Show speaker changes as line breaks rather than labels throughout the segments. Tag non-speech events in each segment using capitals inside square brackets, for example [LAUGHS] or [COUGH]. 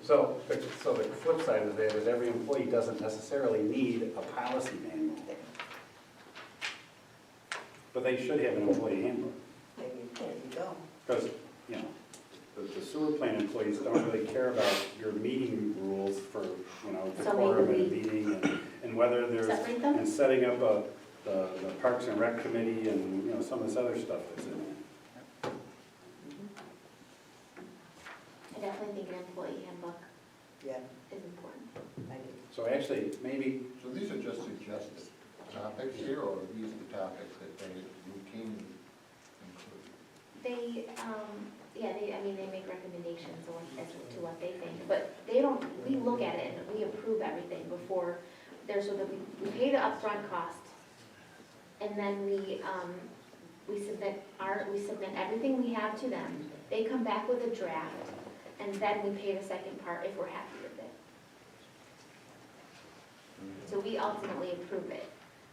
So, but- so the flip side of that is every employee doesn't necessarily need a policy manual. But they should have an employee handbook,
There you there you go.
because, you know, the- the sewer plant employees don't really care about your meeting rules for, you know, the
So
quorum and
maybe
meeting and- and whether there's,
Separate them?
and setting up a, the the Parks and Rec Committee and, you know, some of this other stuff that's in there.
I definitely think an employee handbook
Yeah,
is important.
I do.
So actually, maybe,
So these are just suggested topics here, or are these the topics that they routinely include?
They, um, yeah, they, I mean, they make recommendations on, as to what they think, but they don't, we look at it and we approve everything before, there's, so that we, we pay the upfront cost. And then we, um, we submit our, we submit everything we have to them, they come back with a draft, and then we pay the second part if we're happy with it. So we ultimately approve it,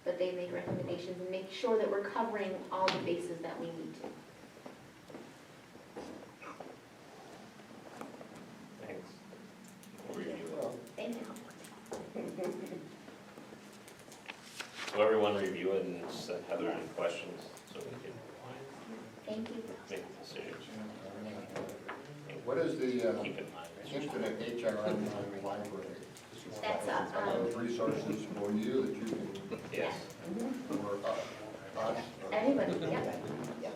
but they make recommendations and make sure that we're covering all the bases that we need to.
Thanks.
Well,
Thank you.
Will everyone review it and send Heather any questions so we can
Thank you.
make a decision?
What is the uh,
Keep in mind.
infinite HRM library?
That's, uh,
Are those resources for you that you can,
Yes.
or us? us, or-
Everybody, yeah.
Yeah.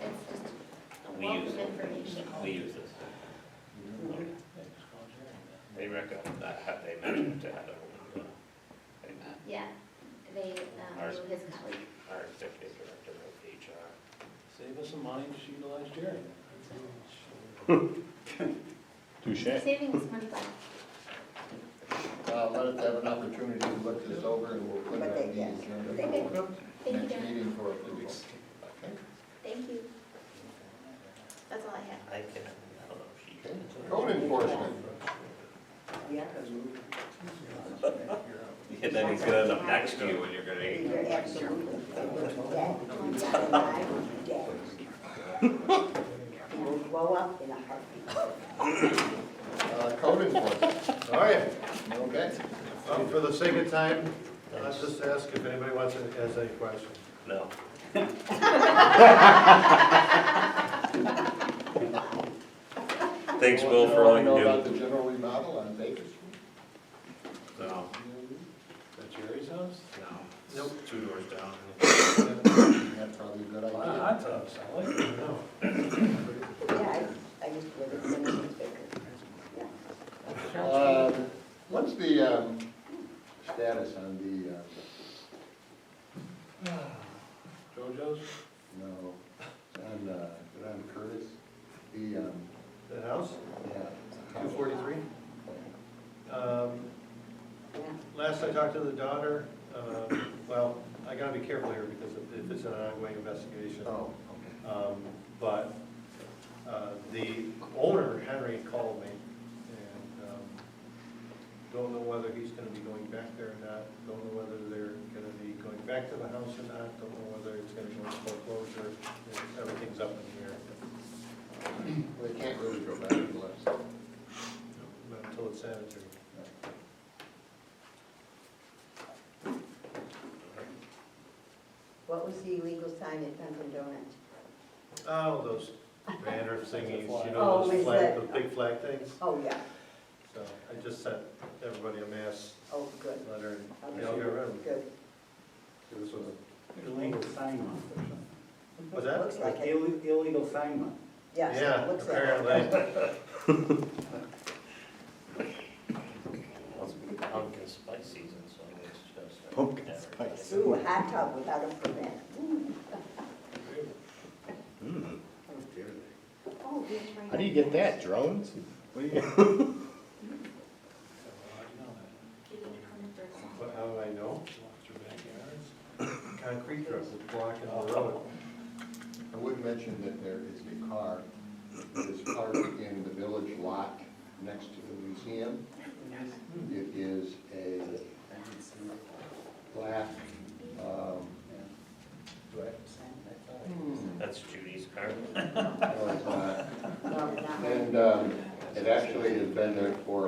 It's just a
We
wealth
use
of
it.
information.
We use this. They recommend, that have they mentioned to Heather, when, uh, they-
Yeah, they, um,
Ours.
knew his colleague.
our executive director of HR.
Save us some money, just utilize Jerry.
Touche.
Saving us money back.
Uh, Let us have an opportunity to look this over, and we'll put it on the
Okay.
agenda for
Thank you,
next
Jen.
meeting for approval. Okay?
Thank you. That's all I have.
I can, I don't know if she
Okay. Code enforcement.
Yeah.
And then he's gonna end up next to you when you're gonna eat.
You're absolutely. Yeah. Yeah. Will blow up in a heartbeat.
Uh, Code enforcement.
All right,
Okay.
um, for the sake of time, let's just ask if anybody wants to, has any questions.
[LAUGHS] No. Thanks, Will, for all you
Know about
do.
the general remodel on Baker Street?
No,
At Jerry's house?
[COUGHS]
no.
Nope.
Two doors down.
That's probably a good
A
idea.
lot of hot tubs, I like it, no.
Yeah, I, I used to live in Simmons Baker. Yeah.
Um, What's the um, status on the, uh,
JoJo's,
no, on, uh, is it on Curtis? The, um,
The house,
yeah.
two forty-three. Um,
Yeah.
Last I talked to the daughter, um, well, I gotta be careful here because if- if it's an ongoing investigation.
Oh,
Um, But uh, the owner, Henry, called me, and um, don't know whether he's gonna be going back there or not, don't know whether they're gonna be going back to the house or not, don't know whether it's gonna go into foreclosure, everything's up in the air.
okay. Well, They can't really go back unless,
Not Until it's sanitary.
What was the illegal sign at Dunkin' Donuts?
Oh, those banner thingies, you
Oh,
know, those
is
flag,
that-
the big flag things.
Oh, yeah,
So I just sent everybody a mass
oh, good.
letter, and
Okay.
they all got rid of them.
Good.
this was a illegal sign month or something.
Was that?
Looks like it,
Ill- Illegal sign month.
yes,
Yeah,
looks like it. [LAUGHS]
apparently.
Pumpkin spice season, so it's just. uh,
Pumpkin spice.
Ooh, a hot tub without a permit.
Oh, we have
How do you get that? Drones? What do you?
Do you need to come in for a second?
But how do I know?
walk through backyards.
Concrete truck was blocking the road.
I would mention that there is a car that is parked in the village lot next to the museum. It is a black, um,
That's Judy's car.
no, it's not.
No, not.
And um,
has.
It actually has been there for